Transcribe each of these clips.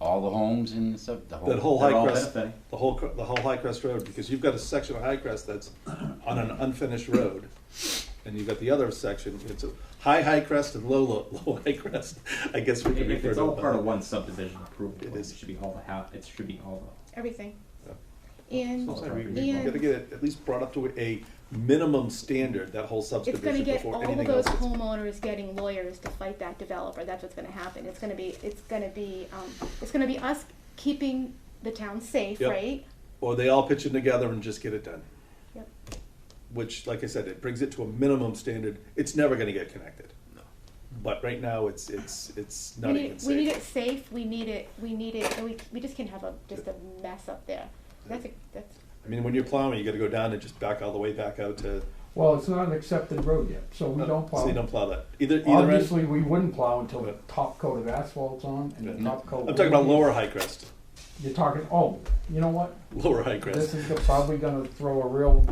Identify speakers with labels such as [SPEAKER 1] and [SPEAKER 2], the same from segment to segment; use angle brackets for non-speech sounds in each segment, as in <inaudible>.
[SPEAKER 1] all the homes and stuff, the whole.
[SPEAKER 2] That whole
[SPEAKER 1] they're
[SPEAKER 2] High
[SPEAKER 1] all
[SPEAKER 2] Crest,
[SPEAKER 1] that way.
[SPEAKER 2] the whole, cr- the whole High Crest Road, because you've got a section of High Crest that's on an unfinished road. And you've got the other section, it's a high High Crest and low, <laughs> low, low High Crest, I guess we could
[SPEAKER 3] If
[SPEAKER 2] refer
[SPEAKER 3] it's
[SPEAKER 2] to
[SPEAKER 3] all part
[SPEAKER 2] it.
[SPEAKER 3] of one subdivision approval,
[SPEAKER 2] It
[SPEAKER 3] it
[SPEAKER 2] is.
[SPEAKER 3] should be all the half, it should be all
[SPEAKER 4] everything.
[SPEAKER 2] Yeah.
[SPEAKER 4] And
[SPEAKER 3] Sounds
[SPEAKER 2] So we- we
[SPEAKER 4] And-
[SPEAKER 2] gotta get it at least brought up to a minimum standard, that whole
[SPEAKER 4] it's gonna
[SPEAKER 2] subdivision
[SPEAKER 4] get
[SPEAKER 2] before
[SPEAKER 4] all of
[SPEAKER 2] anything
[SPEAKER 4] those
[SPEAKER 2] else.
[SPEAKER 4] homeowners getting lawyers to fight that developer, that's what's gonna happen, it's gonna be, it's gonna be, um, it's gonna be us keeping the town safe,
[SPEAKER 2] Yep.
[SPEAKER 4] right?
[SPEAKER 2] Or they all pitch in together and just get it done.
[SPEAKER 4] Yep.
[SPEAKER 2] which, like I said, it brings it to a minimum standard. It's never going to get connected. No. But right now, it's it's it's
[SPEAKER 4] We
[SPEAKER 2] not
[SPEAKER 4] need,
[SPEAKER 2] even
[SPEAKER 4] it-
[SPEAKER 2] safe.
[SPEAKER 4] we need it safe, we need it, we need it, and we, we just can't have a, just a mess up there, that's a, that's,
[SPEAKER 2] I mean, when you're plowing, you got to go down and just back all the way back out to.
[SPEAKER 5] Well, it's not an accepted road yet, so we don't
[SPEAKER 2] Uh, So you
[SPEAKER 5] plow.
[SPEAKER 2] don't plow that either. Either end.
[SPEAKER 5] Obviously, we wouldn't plow until the top coat of asphalt's on and the top coat.
[SPEAKER 2] I'm talking about lower high crest,
[SPEAKER 5] You're talking, oh, you know what?
[SPEAKER 2] lower high crest.
[SPEAKER 5] This is go- probably gonna throw a real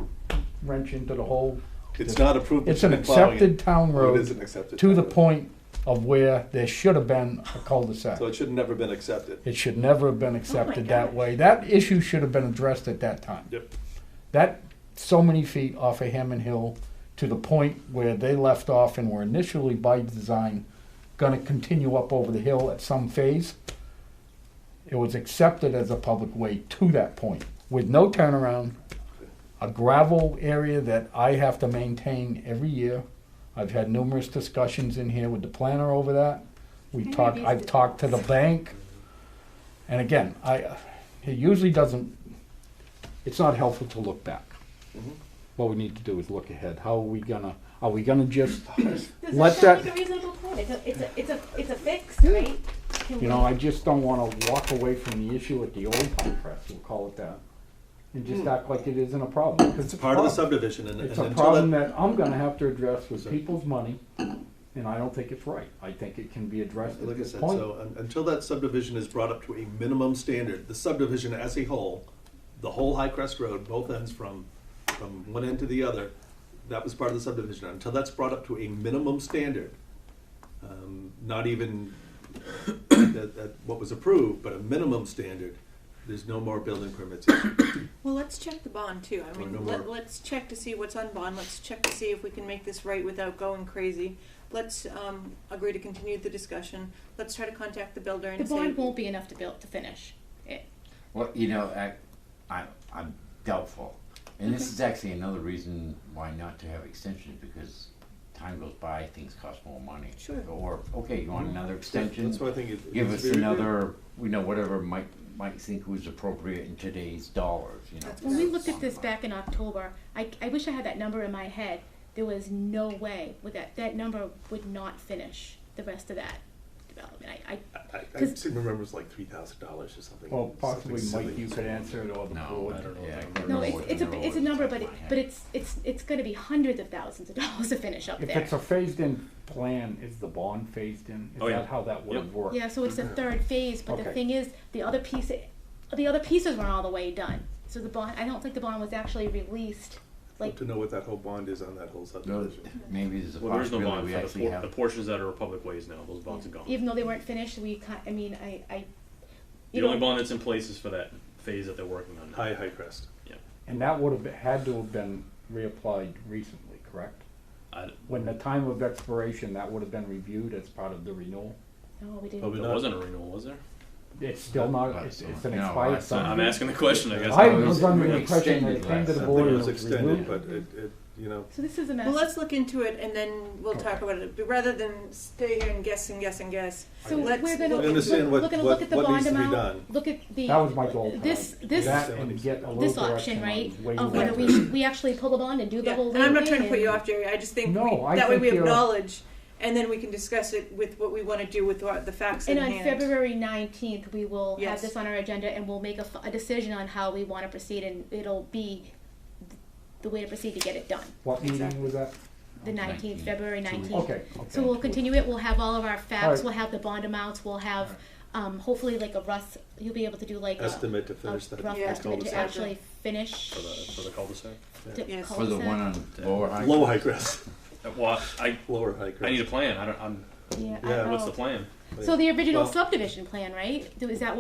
[SPEAKER 5] wrench into the whole,
[SPEAKER 2] it's not approved.
[SPEAKER 5] it's an
[SPEAKER 2] You're plowing
[SPEAKER 5] accepted town
[SPEAKER 2] It is an
[SPEAKER 5] road
[SPEAKER 2] accepted
[SPEAKER 5] to
[SPEAKER 2] town
[SPEAKER 5] the
[SPEAKER 2] road.
[SPEAKER 5] point of where there should have been a cul-de-sac.
[SPEAKER 2] So it should have never been accepted.
[SPEAKER 5] It should never have been accepted that
[SPEAKER 4] gosh.
[SPEAKER 5] way. That issue should have been addressed at that time.
[SPEAKER 2] Yep.
[SPEAKER 5] that so many feet off of Hammond Hill to the point where they left off and were initially by design going to continue up over the hill at some phase. It was accepted as a public way to that point with no turnaround, a gravel area that I have to maintain every year. I've had numerous discussions in here with the planner over that. We
[SPEAKER 4] Henry
[SPEAKER 5] talked.
[SPEAKER 4] Beast
[SPEAKER 5] I've
[SPEAKER 4] did
[SPEAKER 5] talked to the bank, and again, I it usually doesn't. It's not helpful to look back. What we need to do is look ahead. How are we gonna? Are we gonna just let that?
[SPEAKER 4] a reasonable point, it's a, it's a, it's a, it's a fix, right? Can
[SPEAKER 5] You
[SPEAKER 4] we-
[SPEAKER 5] know, I just don't want to walk away from the issue at the old pump press. We'll call it that, and just act like it isn't a problem. 'cause
[SPEAKER 2] Hmm. It's a part of the
[SPEAKER 5] problem.
[SPEAKER 2] subdivision, and,
[SPEAKER 5] It's
[SPEAKER 2] and
[SPEAKER 5] a
[SPEAKER 2] until
[SPEAKER 5] problem
[SPEAKER 2] that,
[SPEAKER 5] that I'm gonna have to address with people's money, and I don't think it's right. I think it can be addressed at
[SPEAKER 2] like I
[SPEAKER 5] this
[SPEAKER 2] said,
[SPEAKER 5] point.
[SPEAKER 2] so un- until that subdivision is brought up to a minimum standard, the subdivision as a whole, the whole High Crest Road, both ends from, from one end to the other, that was part of the subdivision, until that's brought up to a minimum standard, um, not even that, that, what was approved, but a minimum standard, there's no more building permits.
[SPEAKER 6] Well, let's check the bond too. I
[SPEAKER 2] Or Oh, no
[SPEAKER 6] mean,
[SPEAKER 2] more.
[SPEAKER 6] let, let's check to see what's on bond. Let's check to see if we can make this right without going crazy. Let's um, agree to continue the discussion. Let's try to contact the builder and
[SPEAKER 4] The
[SPEAKER 6] say,
[SPEAKER 4] bond won't be enough to build, to finish it,
[SPEAKER 1] Well, you know, I, I, I'm doubtful. And this is actually another reason why not to have extensions, because time goes by, things cost more money.
[SPEAKER 6] Sure.
[SPEAKER 1] Or, okay, you want another <coughs> extension?
[SPEAKER 2] Mm-hmm. That's why I think it.
[SPEAKER 1] Give
[SPEAKER 2] it's
[SPEAKER 1] us
[SPEAKER 2] very-
[SPEAKER 1] another, you know, whatever Mike, Mike think was appropriate in today's dollars, you know.
[SPEAKER 6] That's
[SPEAKER 4] When we looked at this back in October, I, I wish I had that number in my head. There was no way with that, that number would not finish the rest of that development. I, I,
[SPEAKER 2] I, I
[SPEAKER 4] Because-
[SPEAKER 2] seem to remember it's like three thousand dollars or something.
[SPEAKER 5] Well, possibly
[SPEAKER 2] something
[SPEAKER 5] Mike,
[SPEAKER 2] silly.
[SPEAKER 5] you could answer it or the
[SPEAKER 1] No,
[SPEAKER 5] board.
[SPEAKER 1] I don't know. Yeah, I can't
[SPEAKER 4] no,
[SPEAKER 1] remember
[SPEAKER 4] it's,
[SPEAKER 1] what the
[SPEAKER 4] it's a,
[SPEAKER 1] number
[SPEAKER 4] it's a
[SPEAKER 1] was
[SPEAKER 4] number,
[SPEAKER 1] off the
[SPEAKER 4] but, it-
[SPEAKER 1] top of my
[SPEAKER 4] but
[SPEAKER 1] head.
[SPEAKER 4] it's, it's, it's gonna be hundreds of thousands of <laughs> dollars to finish up
[SPEAKER 5] If
[SPEAKER 4] there.
[SPEAKER 5] it's a phased-in plan, is the bond phased-in? Is
[SPEAKER 3] Oh, yeah.
[SPEAKER 5] that how that would have
[SPEAKER 3] Yep.
[SPEAKER 5] worked?
[SPEAKER 4] Yeah, so it's the third phase, but the
[SPEAKER 5] Okay.
[SPEAKER 4] thing is, the other piece, the other pieces weren't all the way done. So the bond, I don't think the bond was actually released, like,
[SPEAKER 2] To know what that whole bond is on that whole
[SPEAKER 1] No,
[SPEAKER 2] subdivision.
[SPEAKER 1] Maybe there's a
[SPEAKER 7] Well, there's no
[SPEAKER 1] possibility
[SPEAKER 7] bond
[SPEAKER 1] we
[SPEAKER 7] for the,
[SPEAKER 1] actually
[SPEAKER 7] por-
[SPEAKER 1] have.
[SPEAKER 7] the portions that are public ways now. Those bonds are gone.
[SPEAKER 4] even though they weren't finished, we, ca- I mean, I, I.
[SPEAKER 7] the
[SPEAKER 4] you
[SPEAKER 7] only
[SPEAKER 4] know,
[SPEAKER 7] bond that's in place is for that phase that they're working on. now.
[SPEAKER 2] High, High Crest.
[SPEAKER 5] And that would have, had to have been reapplied recently, correct?
[SPEAKER 7] I,
[SPEAKER 5] When the time of expiration, that would have been reviewed as part of the renewal?
[SPEAKER 4] No,
[SPEAKER 2] Probably
[SPEAKER 4] we didn't.
[SPEAKER 7] there
[SPEAKER 2] not.
[SPEAKER 7] wasn't a renewal, was there?
[SPEAKER 5] It's still not,
[SPEAKER 1] Last
[SPEAKER 5] it's, it's
[SPEAKER 1] one.
[SPEAKER 5] an
[SPEAKER 1] No,
[SPEAKER 5] expired
[SPEAKER 1] last one.
[SPEAKER 7] I'm
[SPEAKER 5] sign.
[SPEAKER 7] asking the question. I guess.
[SPEAKER 5] I
[SPEAKER 1] It
[SPEAKER 5] was
[SPEAKER 1] was
[SPEAKER 5] under the
[SPEAKER 1] extended
[SPEAKER 5] impression that it came to
[SPEAKER 1] last
[SPEAKER 5] the
[SPEAKER 1] time.
[SPEAKER 5] board
[SPEAKER 2] Something
[SPEAKER 5] and
[SPEAKER 2] was
[SPEAKER 5] it was reviewed.
[SPEAKER 2] extended, but it, it, you know,
[SPEAKER 4] So this is a mess.
[SPEAKER 6] well, let's look into it and then we'll talk about it. But rather than stay here and guess and guess and guess,
[SPEAKER 4] So
[SPEAKER 6] let's
[SPEAKER 4] we're gonna
[SPEAKER 6] look
[SPEAKER 4] look,
[SPEAKER 2] understand
[SPEAKER 4] look,
[SPEAKER 2] what-
[SPEAKER 4] we're gonna
[SPEAKER 2] what-
[SPEAKER 4] look at the
[SPEAKER 2] what needs
[SPEAKER 4] bond
[SPEAKER 2] to be
[SPEAKER 4] amount,
[SPEAKER 2] done.
[SPEAKER 4] look at the.
[SPEAKER 5] That was my goal. Tom.
[SPEAKER 4] This, this,
[SPEAKER 5] That and get a little
[SPEAKER 4] this option,
[SPEAKER 5] direction
[SPEAKER 4] right,
[SPEAKER 5] on way
[SPEAKER 4] of
[SPEAKER 5] where-
[SPEAKER 4] whether we, we actually pull the bond and do the
[SPEAKER 6] Yeah,
[SPEAKER 4] whole
[SPEAKER 6] and I'm not
[SPEAKER 4] little
[SPEAKER 6] trying to put
[SPEAKER 4] thing
[SPEAKER 6] you
[SPEAKER 4] and-
[SPEAKER 6] off, Jerry. I just think
[SPEAKER 5] No,
[SPEAKER 6] we,
[SPEAKER 5] I
[SPEAKER 6] that way
[SPEAKER 5] think
[SPEAKER 6] we have
[SPEAKER 5] you're-
[SPEAKER 6] knowledge, and then we can discuss it with what we want to do with what, the facts
[SPEAKER 4] And
[SPEAKER 6] in
[SPEAKER 4] on
[SPEAKER 6] hand.
[SPEAKER 4] February nineteenth, we will have
[SPEAKER 6] Yes.
[SPEAKER 4] this on our agenda and we'll make a, f- a decision on how we wanna proceed and it'll be th- the way to proceed to get it done,
[SPEAKER 5] What meeting
[SPEAKER 6] Exactly.
[SPEAKER 5] was that?
[SPEAKER 4] the nineteenth,
[SPEAKER 1] 19th,
[SPEAKER 4] February nineteenth.
[SPEAKER 5] Okay, okay.
[SPEAKER 4] So we'll continue it, we'll have all of our facts,
[SPEAKER 5] Alright.
[SPEAKER 4] we'll have the bond amounts, we'll have, um, hopefully like a Russ, you'll be able to do like a.
[SPEAKER 2] estimate to
[SPEAKER 4] a
[SPEAKER 2] finish
[SPEAKER 4] rough
[SPEAKER 2] that.
[SPEAKER 6] Yeah.
[SPEAKER 4] estimate to
[SPEAKER 6] cul-de-sac.
[SPEAKER 4] actually finish.
[SPEAKER 7] For the, for the cul-de-sac.
[SPEAKER 4] the
[SPEAKER 6] Yes.
[SPEAKER 1] For the
[SPEAKER 4] cul-de-sac.
[SPEAKER 1] one on Lower High.
[SPEAKER 2] Low High Crest, <laughs>
[SPEAKER 7] Uh, Well, I
[SPEAKER 2] lower High Crest.
[SPEAKER 7] I need a plan. I don't. I'm.
[SPEAKER 4] Yeah, I
[SPEAKER 2] Yeah,
[SPEAKER 4] don't
[SPEAKER 7] What's the
[SPEAKER 4] know.
[SPEAKER 7] plan?
[SPEAKER 4] So the original
[SPEAKER 2] Well-
[SPEAKER 4] subdivision plan, right? Is that